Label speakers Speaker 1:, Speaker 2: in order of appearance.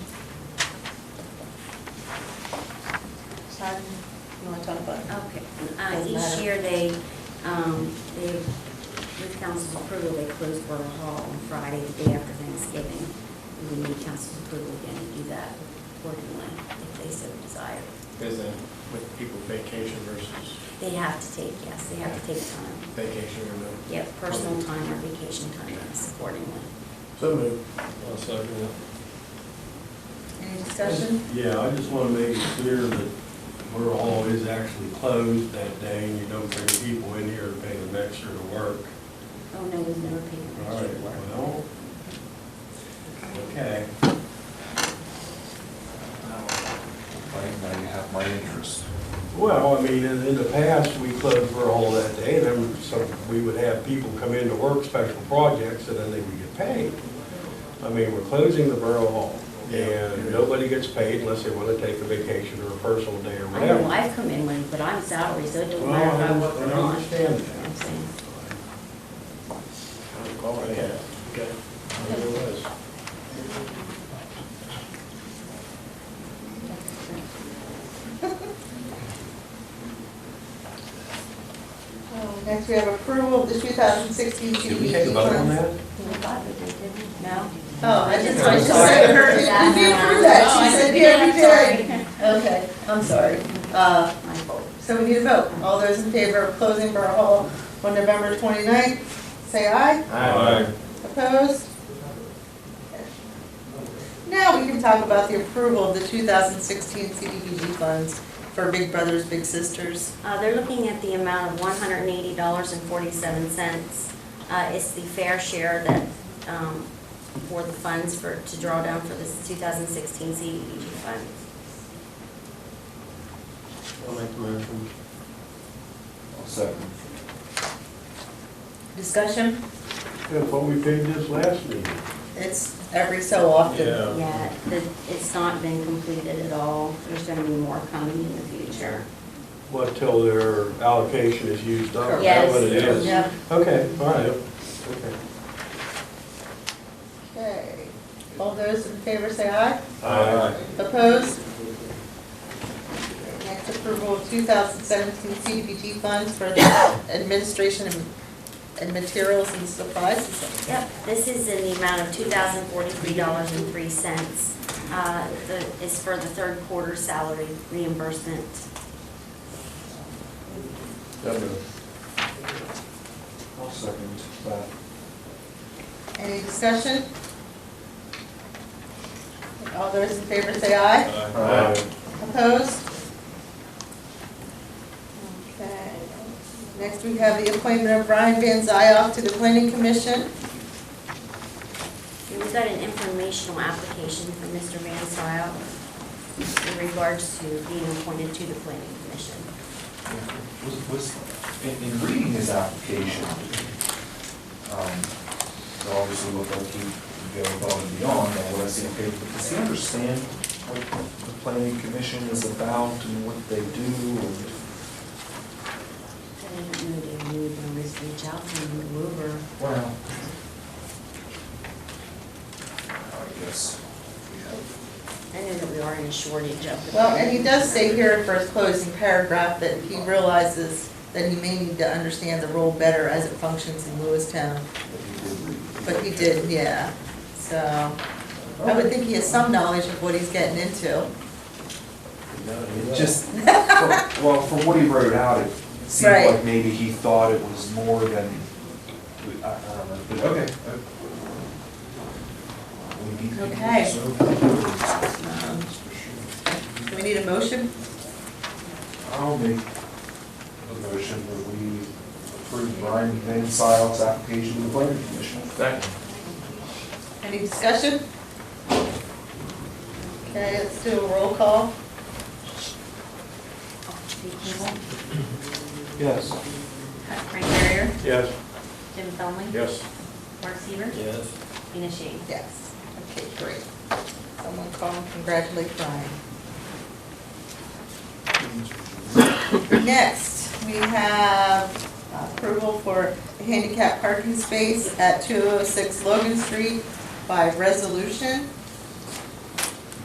Speaker 1: Todd, you want to talk about? it?
Speaker 2: Okay, Uh,
Speaker 1: Doesn't
Speaker 2: each
Speaker 1: matter.
Speaker 2: year they, um, they, with council's approval, they close Borough Hall on Friday, the day after Thanksgiving. We would need council's approval again to do that accordingly, if they so desire.
Speaker 3: Is that with people vacation versus
Speaker 2: They have to take, yes, they have to take time.
Speaker 3: vacation or no?
Speaker 2: Yeah, personal time or vacation time, yes, accordingly.
Speaker 3: So moved.
Speaker 4: I'll second
Speaker 1: Any discussion?
Speaker 4: Yeah, I just want to make it clear that Borough Hall is actually closed that day, and you don't bring people in here to pay them extra to work.
Speaker 2: Oh, no, we've never paid them
Speaker 4: All
Speaker 2: extra
Speaker 4: right,
Speaker 2: to work.
Speaker 4: well, okay.
Speaker 5: Now you have my interest.
Speaker 4: Well, I mean, in, in the past, we closed Borough Hall that day, and then some, we would have people come in to work special projects, and then they would get paid. I mean, we're closing the Borough Hall, and nobody gets paid unless they want to take a vacation or a personal day or
Speaker 2: I
Speaker 4: whatever.
Speaker 2: know, I've come in late, but I'm salary, so it doesn't
Speaker 4: Well,
Speaker 2: matter if I
Speaker 4: I
Speaker 2: work or
Speaker 4: I
Speaker 2: not.
Speaker 4: understand
Speaker 2: You know what I'm
Speaker 4: that.
Speaker 2: saying?
Speaker 3: Okay. Okay. There it was.
Speaker 1: Oh, Next, we have approval of the 2016
Speaker 5: Did we take a vote on that?
Speaker 2: We thought we did, didn't we? No?
Speaker 1: Oh, I just, I
Speaker 5: I'm
Speaker 1: just
Speaker 5: sorry.
Speaker 1: said her, did you approve that?
Speaker 2: Oh, I
Speaker 1: She said,
Speaker 2: did.
Speaker 1: yeah, we
Speaker 2: Sorry.
Speaker 1: did. Okay, I'm sorry. Uh,
Speaker 2: My fault.
Speaker 1: So we need a vote. All those in favor of closing Borough Hall on November 29th, say aye. Opposed? Now we can talk about the approval of the 2016 CDBG funds for Big Brothers Big Sisters.
Speaker 2: Uh, they're looking at the amount of one hundred and eighty dollars and forty-seven cents. Uh, it's the fair share that, um, for the funds for, to draw down for this two thousand sixteen CDBG fund.
Speaker 4: I'll make the motion.
Speaker 5: I'll second.
Speaker 1: Discussion?
Speaker 4: Yeah, what we paid this last meeting.
Speaker 1: It's every so often.
Speaker 4: Yeah.
Speaker 2: Yeah, the, it's not been completed at all. There's gonna be more coming in the future.
Speaker 4: What, till their allocation is used up? Oh, Is that
Speaker 2: Yes.
Speaker 4: what it is?
Speaker 1: Yeah.
Speaker 4: Okay, all right, okay.
Speaker 1: Okay. All those in favor say aye.
Speaker 4: Aye.
Speaker 1: Opposed? Next approval of 2017 CDBG funds for the administration and- and materials and supplies.
Speaker 2: Yep, this is in the amount of two thousand forty-three dollars and three cents. Uh, the, is for the third quarter salary reimbursement.
Speaker 5: So moved. I'll second that.
Speaker 1: Any discussion? All those in favor say aye.
Speaker 5: Aye.
Speaker 1: Opposed? Okay. Next, we have the appointment of Brian Van Zyl to the Planning Commission.
Speaker 2: And We've got an informational application from Mr. Van Sile in regards to being appointed to the planning commission.
Speaker 5: Was, was, in, in reading his application, um, it obviously looked like he go above and beyond on what I see on paper, but does he understand what the planning commission is about and what they do? and-
Speaker 2: I didn't know they knew when we reached out to him, and we were-
Speaker 5: Well. I guess we have,
Speaker 2: I know that we are in a shortage of the.
Speaker 1: Well, and he does say here in first closing paragraph that he realizes that he may need to understand the role better as it functions in Lewistown,
Speaker 5: but he did read.
Speaker 1: but he did, yeah. So, I would think he has some knowledge of what he's getting into.
Speaker 5: It just, for- well, from what he wrote out, it seemed
Speaker 1: Right.
Speaker 5: like maybe he thought it was more than, I I don't know, but okay. uh, we need people
Speaker 1: Okay.
Speaker 5: to serve the purpose.
Speaker 1: Um, Do we need a motion?
Speaker 5: I'll make a motion that we approve Brian Van Sile's application to the planning commission.
Speaker 3: Second.
Speaker 1: Any discussion? Okay, let's do a roll call.
Speaker 2: Steve Campbell,
Speaker 4: Yes.
Speaker 2: Frank Barrier,
Speaker 4: Yes.
Speaker 2: Jim Thelman,
Speaker 3: Yes.
Speaker 2: Mark Seaver,
Speaker 4: Yes.
Speaker 2: Ina Shane.
Speaker 1: Yes. Okay, great. Someone call and congratulate Brian. Next, we have approval for a oh handicap parking space at 206 Logan Street by resolution.